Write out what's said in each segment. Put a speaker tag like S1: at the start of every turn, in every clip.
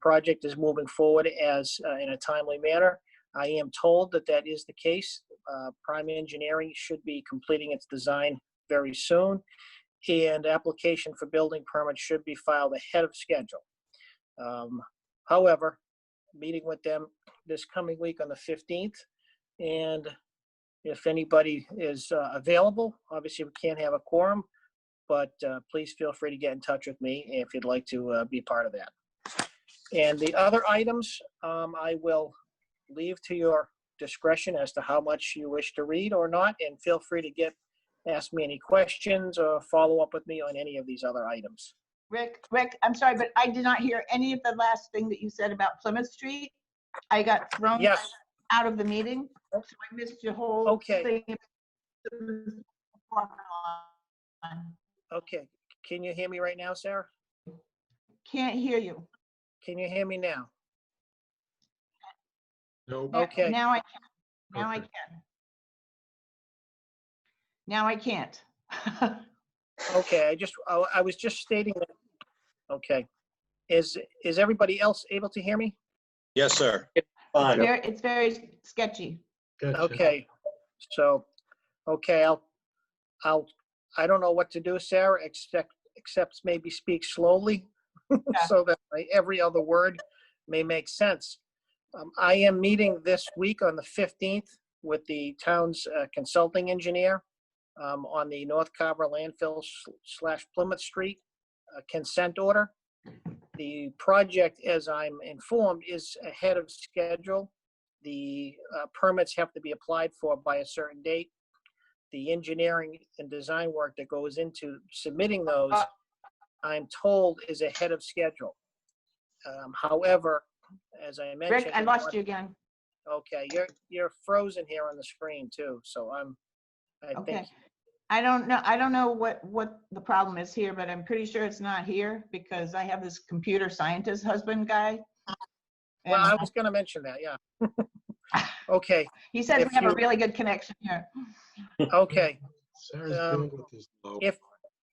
S1: project is moving forward as, uh, in a timely manner. I am told that that is the case. Uh, Prime Engineering should be completing its design very soon, and application for building permit should be filed ahead of schedule. Um, However, meeting with them this coming week on the 15th, and if anybody is uh, available, obviously we can't have a quorum, but uh, please feel free to get in touch with me if you'd like to uh, be part of that. And the other items, um, I will leave to your discretion as to how much you wish to read or not, and feel free to get, ask me any questions or follow up with me on any of these other items.
S2: Rick, Rick, I'm sorry, but I did not hear any of the last thing that you said about Plymouth Street. I got thrown
S1: Yes,
S2: out of the meeting, so I missed your whole
S1: Okay.
S2: thing.
S1: okay. Can you hear me right now, Sarah?
S2: Can't hear you.
S1: Can you hear me now?
S3: Nope.
S2: Now-
S1: Okay.
S2: Now I, can. now I
S3: Okay.
S2: can. Now I can't.
S1: Okay, I just, I, I was just stating that, okay. Is, is everybody else able to hear me?
S4: Yes, sir. Fine.
S2: Ver- It's very sketchy.
S3: Gotcha.
S1: Okay, so, okay, I'll, I'll, I don't know what to do, Sarah, except, except maybe speak slowly so that my- every other word may make sense. Um, I am meeting this week on the 15th with the town's uh, consulting engineer um, on the North Carver landfill sl- slash Plymouth Street uh, consent order. The project, as I'm informed, is ahead of schedule the uh, permits have to be applied for by a certain date. The engineering and design work that goes into submitting those,
S2: Uh,
S1: I'm told, is ahead of schedule. Um, However, as I mentioned.
S2: Rick, I lost you again.
S1: Okay, you're, you're frozen here on the screen too, so I'm, I think,
S2: Okay. I don't know, I don't know what, what the problem is here, but I'm pretty sure it's not here because I have this computer scientist husband guy.
S1: well, I
S2: And
S1: was gonna mention that, yeah. Okay,
S2: he says
S1: if
S2: we have a
S1: you-
S2: really good connection here.
S1: okay.
S3: Sarah's
S1: Um,
S3: bandwidth is low.
S1: if-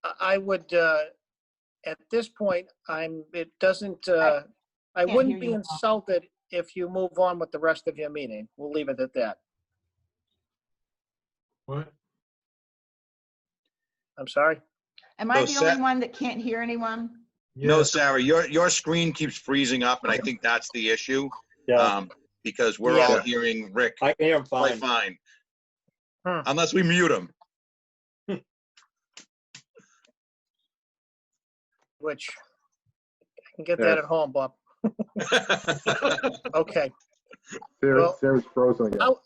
S1: I- I would, uh, at this point, I'm, it doesn't, uh, I
S2: can't
S1: wouldn't
S2: hear
S1: be
S2: you.
S1: insulted if you move on with the rest of your meeting. We'll leave it at that.
S3: What?
S1: I'm sorry.
S2: Am I
S4: No,
S2: the
S4: Sa-
S2: only one that can't hear anyone?
S4: No,
S3: Yes,
S4: Sarah, your, your screen keeps freezing up, and I think that's the issue,
S5: Yeah,
S4: um, because we're all
S5: Yeah.
S4: hearing Rick
S5: I can hear him
S4: play
S5: fine.
S4: fine.
S1: Hmm.
S4: Unless we mute him.
S1: Which, I can get that at home, Bob. Okay. Well-
S6: Sarah, Sarah's frozen again.
S1: How,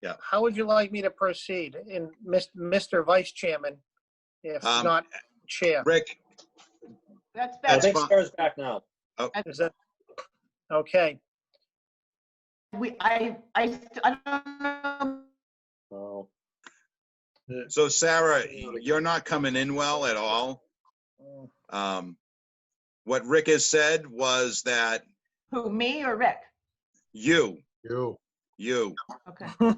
S4: Yeah.
S1: how would you like me to proceed in Mis- Mr. Vice Chairman, if
S4: Um,
S1: not Chair?
S4: Rick,
S2: That's
S5: I
S2: better.
S5: think
S4: fine.
S5: Sarah's back now.
S1: Is that, okay,
S2: We, I, I, st- I don't know
S5: Oh,
S4: so Sarah, you're not coming in well at all. Um, what Rick has said was that
S2: who, me or Rick?
S4: you,
S3: you.
S4: you.
S2: Okay.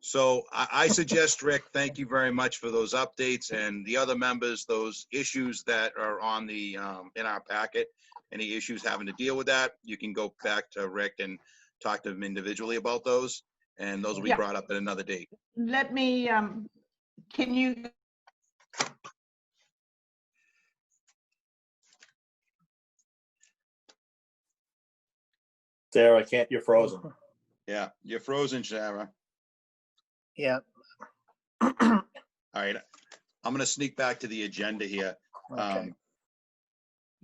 S4: So I, I suggest, Rick, thank you very much for those updates and the other members, those issues that are on the, um, in our packet. Any issues having to deal with that, you can go back to Rick and talk to him individually about those. And those will be
S2: Yeah.
S4: brought up at another date.
S2: Let me, um, can you?
S5: Sarah, I can't, you're frozen.
S1: Oh.
S4: Yeah, you're frozen, Sarah.
S1: yeah.
S4: All right, I'm gonna sneak back to the agenda here.
S1: Okay.
S4: Um,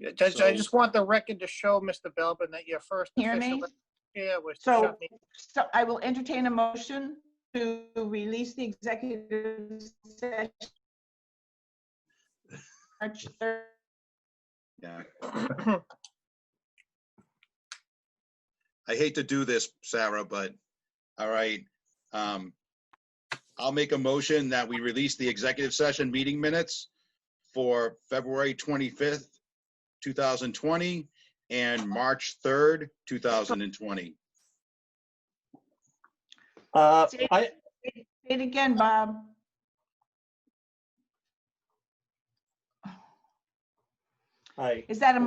S1: I just- I
S4: so-
S1: just want the record to show, Mr. Belbin, that your first
S2: Hear me?
S1: official chair was to
S2: So-
S1: shut me
S2: So I will entertain a motion to release the executive session. March 3rd.
S4: yeah. I hate to do this, Sarah, but, all right. um, I'll make a motion that we release the executive session meeting minutes for February 25th, 2020, and March 3rd, 2020.
S5: Uh, I,
S2: Say it again, Bob.
S5: I.
S2: Is that a